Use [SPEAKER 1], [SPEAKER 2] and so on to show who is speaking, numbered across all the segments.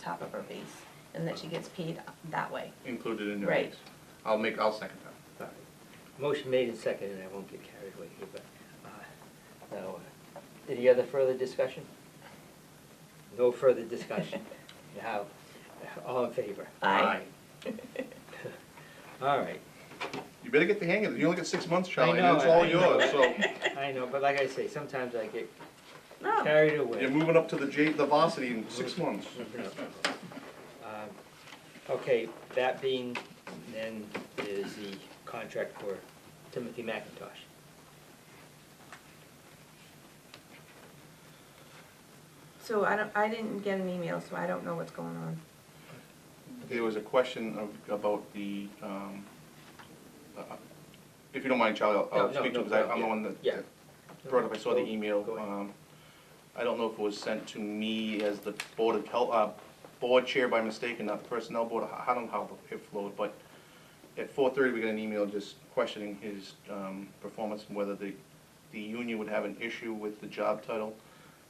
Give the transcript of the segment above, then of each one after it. [SPEAKER 1] top of her base, and that she gets paid that way.
[SPEAKER 2] included in your
[SPEAKER 1] Right.
[SPEAKER 2] raise. I'll make, I'll second that.
[SPEAKER 3] All right. Motion made and seconded, I won't get carried away here, but, uh, now, uh, any other further discussion? No further discussion. Now, all in favor?
[SPEAKER 1] Aye.
[SPEAKER 3] All right,
[SPEAKER 2] You better get the hang of it, you only get six months,
[SPEAKER 3] I
[SPEAKER 2] Charlie,
[SPEAKER 3] know,
[SPEAKER 2] and it's all
[SPEAKER 3] I know.
[SPEAKER 2] yours, so
[SPEAKER 3] I know, but like I say, sometimes I get
[SPEAKER 1] No,
[SPEAKER 3] carried away.
[SPEAKER 2] you're moving up to the J, the varsity in six months.
[SPEAKER 3] Um, Okay, that being, then, is the contract for Timothy McIntosh.
[SPEAKER 1] so I don't, I didn't get an email, so I don't know what's going on.
[SPEAKER 2] There was a question of, about the, um, uh, if you don't mind, Charlie, I'll-
[SPEAKER 3] No,
[SPEAKER 2] I'll
[SPEAKER 3] no,
[SPEAKER 2] speak to,
[SPEAKER 3] no
[SPEAKER 2] because I'm
[SPEAKER 3] problem,
[SPEAKER 2] the
[SPEAKER 3] yeah,
[SPEAKER 2] one that
[SPEAKER 3] yeah.
[SPEAKER 2] that brought up, I saw the
[SPEAKER 3] Go-
[SPEAKER 2] email.
[SPEAKER 3] go ahead.
[SPEAKER 2] um, I don't know if it was sent to me as the board of health, uh, board chair by mistake and not the personnel board, I I don't know how it flowed, but at four thirty, we got an email just questioning his, um, performance and whether the, the union would have an issue with the job title.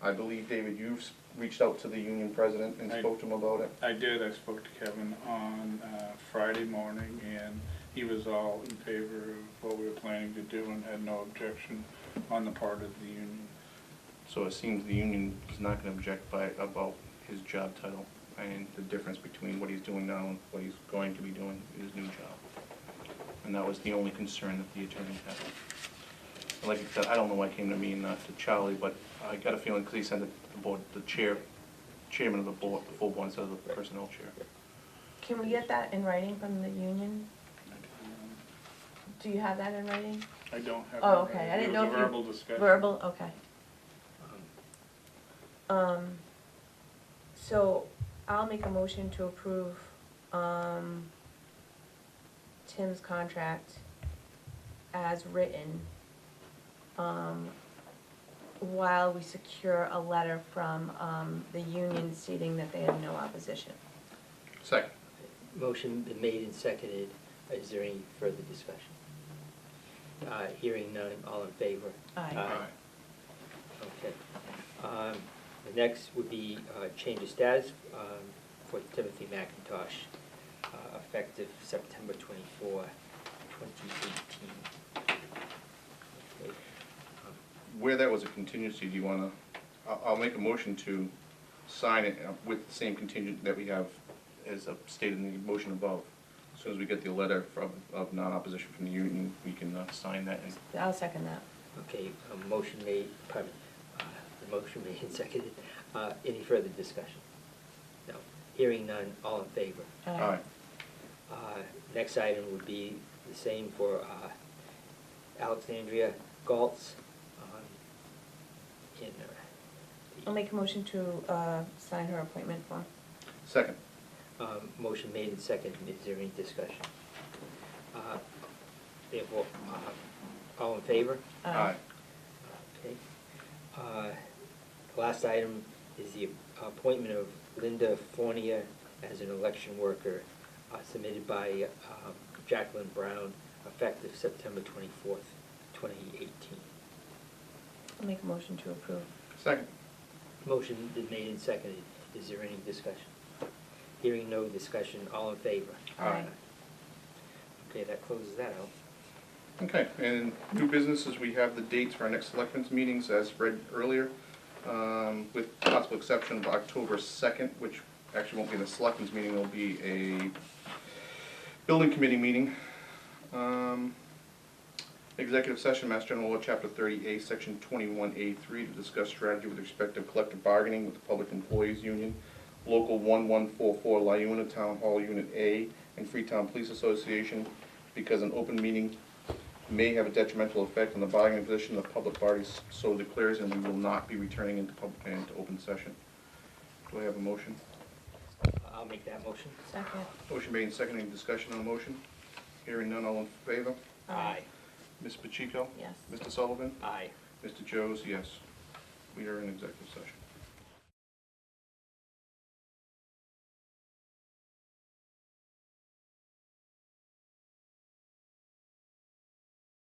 [SPEAKER 2] I believe, David, you've s- reached out to the union president and
[SPEAKER 4] I-
[SPEAKER 2] spoke to him about it.
[SPEAKER 4] I did, I spoke to Kevin on uh, Friday morning, and he was all in favor of what we were planning to do and had no objection on the part of the union.
[SPEAKER 2] So it seems the union is not gonna object by, about his job title and the difference between what he's doing now and what he's going to be doing in his new job. And that was the only concern that the attorney had. And Like I said, I don't know why it came to me and not to Charlie, but I got a feeling, cause he sent it to the board, the chair, chairman of the board, the full board instead of the personnel chair.
[SPEAKER 1] Can we get that in writing from the union? Do you have that in writing?
[SPEAKER 4] Um, I don't have.
[SPEAKER 1] Oh, okay, I didn't know
[SPEAKER 4] It
[SPEAKER 1] if
[SPEAKER 4] was
[SPEAKER 1] you-
[SPEAKER 4] a verbal discussion.
[SPEAKER 1] Verbal, okay.
[SPEAKER 3] Um,
[SPEAKER 1] Um, so I'll make a motion to approve, um, Tim's contract as written, um, while we secure a letter from, um, the union stating that they have no opposition.
[SPEAKER 2] Second.
[SPEAKER 3] Motion been made and seconded. Is there any further discussion? Uh, Hearing none, all in favor?
[SPEAKER 1] Aye.
[SPEAKER 3] Okay. Um, The next would be uh, change of status um, for Timothy McIntosh, uh, effective September 24, 2018. Okay. Um,
[SPEAKER 2] Where that was a contingency, do you wanna, I'll, I'll make a motion to sign it uh, with the same contingent that we have as uh, stated in the motion above. As soon as we get the letter from, of non-opposition from the union, we can uh, sign that and
[SPEAKER 1] I'll second that.
[SPEAKER 3] Okay, a motion made, pardon, uh, the motion made and seconded. Uh, Any further discussion? No. Hearing none, all in favor?
[SPEAKER 2] Aye.
[SPEAKER 3] Uh, Next item would be the same for uh, Alexandria Galtz. um, in, uh, the-
[SPEAKER 1] I'll make a motion to, uh, sign her appointment form.
[SPEAKER 2] Second.
[SPEAKER 3] Um, Motion made and seconded, is there any discussion? Uh, Therefore, uh, all in favor?
[SPEAKER 1] Aye.
[SPEAKER 3] Okay. Uh, the Last item is the appointment of Linda Fornia as an election worker uh, submitted by um, Jacqueline Brown, effective September twenty-fourth, twenty eighteen.
[SPEAKER 1] I'll make a motion to approve.
[SPEAKER 2] Second.
[SPEAKER 3] Motion been made and seconded. Is there any discussion? Hearing no discussion, all in favor?
[SPEAKER 1] Aye.
[SPEAKER 3] Okay, that closes that out.
[SPEAKER 2] Okay, and new businesses, we have the dates for our next selectmen's meetings as read earlier, um, with possible exception of October second, which actually won't be the selectmen's meeting, it'll be a building committee meeting. Um, Executive session, Mass General Law, Chapter thirty A, Section twenty-one A three, to discuss strategy with respect to collective bargaining with the Public Employees Union, Local one-one-four-four, Lyuna Town Hall Unit A, and Freetown Police Association, because an open meeting may have a detrimental effect on the bargaining position of the public parties, so declares, and we will not be returning into public, into open session. Do I have a motion?
[SPEAKER 3] I'll make that motion.
[SPEAKER 1] Second.
[SPEAKER 2] Motion made and seconded, Any discussion on the motion? Hearing none, all in favor? Ms. Pacheco?
[SPEAKER 1] Yes.
[SPEAKER 2] Mr. Sullivan?
[SPEAKER 3] Aye.
[SPEAKER 2] Mr. Joes, yes. We are in executive session.